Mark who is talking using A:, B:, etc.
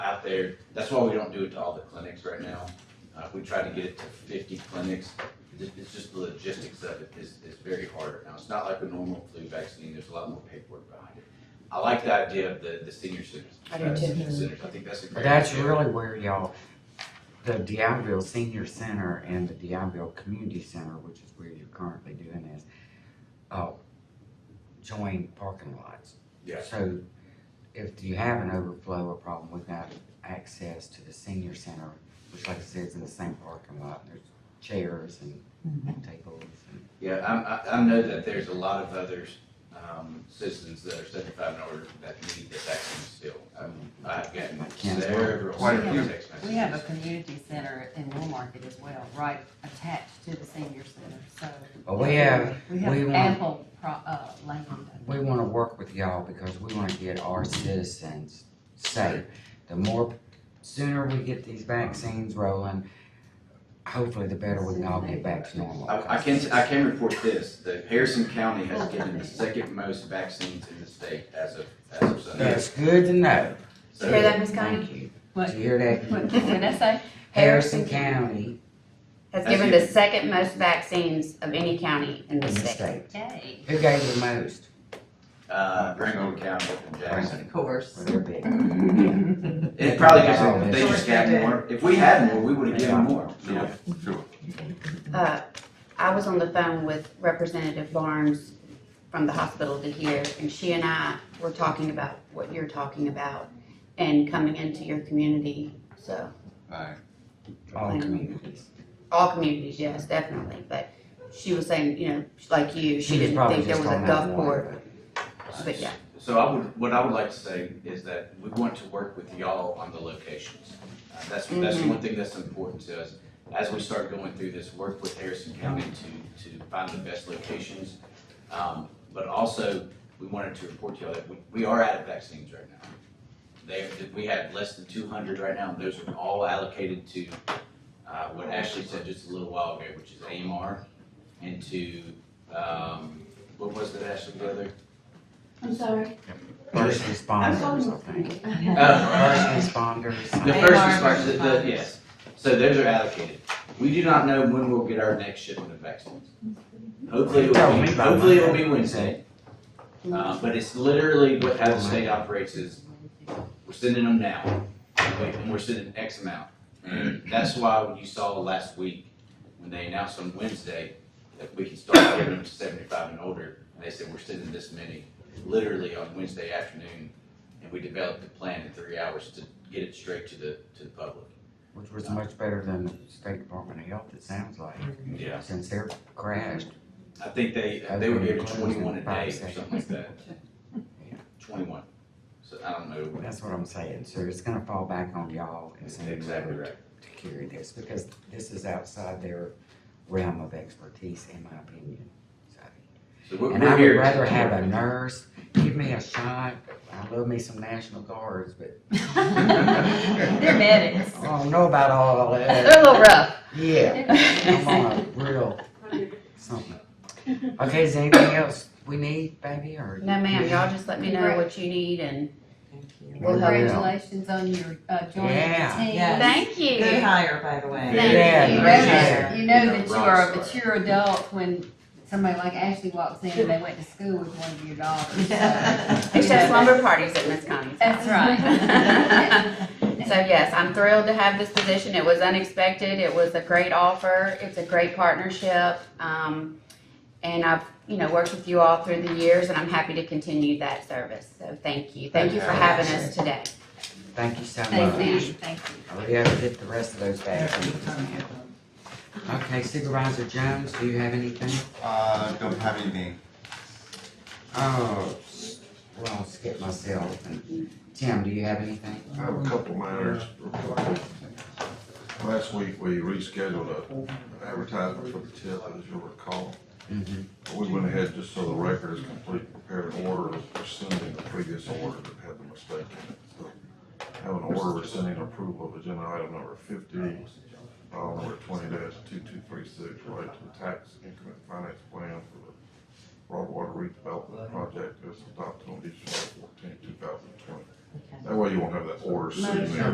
A: out there. That's why we don't do it to all the clinics right now. Uh, we try to get it to fifty clinics. It's, it's just the logistics of it is, is very hard. Now, it's not like a normal flu vaccine. There's a lot more paperwork behind it. I like the idea of the, the senior centers.
B: I do too.
A: Senior centers. I think that's a great.
C: That's
A: idea.
C: really where y'all, the Deionville Senior Center and the Deionville Community Center, which is where you're currently doing this, uh, join parking lots.
A: Yeah.
C: So if you have an overflow or problem, we've got access to the senior center, which like I said, is in the same parking lot. There's chairs
B: Mm-hmm.
C: and tables and.
A: Yeah, I, I, I know that there's a lot of others, um, citizens that are seventy-five and older that need the vaccine still. Um, I've gotten
C: Can't-
A: several,
D: Quite a
A: several
D: few.
A: text messages.
B: We have a community center in Woolmarket as well, right attached to the senior center, so.
C: But Oh, we have,
B: We
C: we
B: have
C: want-
B: ample pro, uh, land.
C: we wanna work with y'all because we wanna get our citizens safe. The more, sooner we get these vaccines rolling, hopefully the better we can all get back to normal.
A: I, I can, I can report this, that Harrison County has given the second most vaccines in the state as of, as of Sunday.
C: That's good to know.
A: So-
E: Hear that, Ms. Connie?
C: Thank you.
B: What?
C: Did you hear
B: What
C: that?
B: did I say?
C: Harrison County
E: Has
A: That's
E: given
A: it.
E: the second most vaccines of any county in the
C: in the
E: state.
C: state.
B: Yay.
C: Who gave the most?
A: Uh, Ringgold County and Jackson.
B: Of course.
C: Well, they're big.
A: It probably just, they just got more, if we had more, we would've given more, you know?
D: Sure.
E: Uh, I was on the phone with Representative Barnes from the hospital to here, and she and I were talking about what you're talking about and coming into your community, so,
D: Alright,
C: All communities.
E: all communities, yes, definitely, but she was saying, you know, like you, she
C: was
E: didn't
C: probably
E: think there
C: just
E: was a
C: on that
E: Gulfport,
C: one,
E: but yeah.
A: So I would, what I would like to say is that we want to work with y'all on the locations. Uh, That's, that's
E: Mhm.
A: one thing that's important to us. As we start going through this, work with Harrison County to, to find the best locations. Um, But also, we wanted to report to y'all that we, we are out of vaccines right now. They, we have less than two hundred right now, and those are all allocated to, uh, what Ashley said just a little while ago, which is AMR, and to, um, what was it, Ashley, the other?
F: I'm sorry.
C: First responders, I think. First
A: Uh,
C: responders.
A: The first
B: AR
A: response, the,
B: versus
A: the,
B: funds.
A: yes, so those are allocated. We do not know when we'll get our next shipment of vaccines. Hopefully, it
C: Tell
A: will
C: me
A: be,
C: about
A: hopefully
C: that.
A: it will be Wednesday. Uh, but it's literally what how the state operates is, we're sending them now, wait, and we're sending X amount. And that's why when you saw last week, when they announced on Wednesday that we can start giving them to seventy-five and older, and they said, we're sending this many, literally on Wednesday afternoon. And we developed a plan in three hours to get it straight to the, to the public.
C: Which was much better than the State Department of Health, it sounds like,
A: Yeah.
C: since they're crashed.
A: I think they, they were given twenty-one a day or something like that.
C: Yeah.
A: Twenty-one, so I don't know.
C: That's what I'm saying, so it's gonna fall back on y'all and some of you
A: Exactly
C: to
A: right.
C: carry this, because this is outside their realm of expertise, in my opinion. So-
A: So we're,
C: And I
A: we're
C: would
A: here.
C: rather have a nurse, give me a shot, I love me some National Guards, but
B: They're medics.
C: I don't know about all of
E: They're a
C: that.
E: little rough.
C: Yeah, I'm on a real something. Okay, is there anything else we need, baby, or?
E: No, ma'am, y'all just let me know what you need and
C: We'll help you out.
B: Congratulations on your, uh, joining
C: Yeah.
B: the team.
G: Yeah.
E: thank you.
G: Good hire, by the way.
A: Very
C: Yeah,
B: You know
A: nice.
B: that- You know that you are a
A: Rock star.
B: mature adult when somebody like Ashley walks in and they went to school with one of your daughters. so-
E: It's just slumber parties at Miss Connie's.
B: That's right.
E: So yes, I'm thrilled to have this position. It was unexpected. It was a great offer. It's a great partnership. Um, and I've, you know, worked with you all through the years and I'm happy to continue that service. So thank you. Thank you for having us today.
C: Thank you so much.
B: Thank you, thank you.
C: I'll be able to get the rest of those back. Okay Supervisor Jones, do you have anything?
D: uh, don't have anything.
C: Oh, well, I'll skip myself. And Tim, do you have anything?
H: I have a couple matters. Last week, we rescheduled a advertisement for the TIP, as you'll recall.
C: Mhm.
H: We went ahead, just so the record is complete, prepared an order rescinding the previous order that had the mistake in it. So Have an order rescinding approval of agenda item number fifty, file number twenty two-two-three-six, right to the tax increment finance plan for the Broadwater redevelopment project that's adopted on December 14, thousand twenty. That way you won't have that order sitting there.